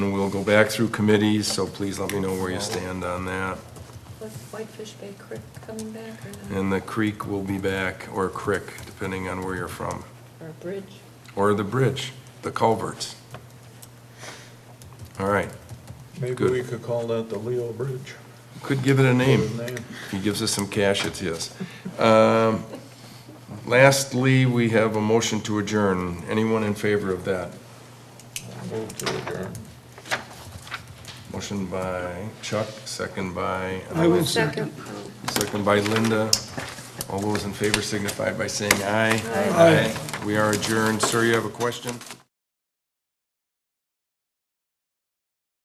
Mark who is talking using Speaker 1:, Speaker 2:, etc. Speaker 1: go back through committees, so please let me know where you stand on that.
Speaker 2: Was Whitefish Bay Creek coming back or not?
Speaker 1: And the creek will be back, or crick, depending on where you're from,
Speaker 2: Or a bridge?
Speaker 1: or the bridge, the culverts. All right,
Speaker 3: Maybe
Speaker 1: Good.
Speaker 3: we could call that the Leo Bridge.
Speaker 1: could give it a name.
Speaker 3: Good name.
Speaker 1: He gives us some cash, it's his. Um, Lastly, we have a motion to adjourn. Anyone in favor of that?
Speaker 3: Move to adjourn.
Speaker 1: Motion by Chuck, second by,
Speaker 4: I will second.
Speaker 2: Second.
Speaker 1: second by Linda. All those in favor signify by saying aye.
Speaker 2: Aye.
Speaker 1: We are adjourned. Sir, you have a question?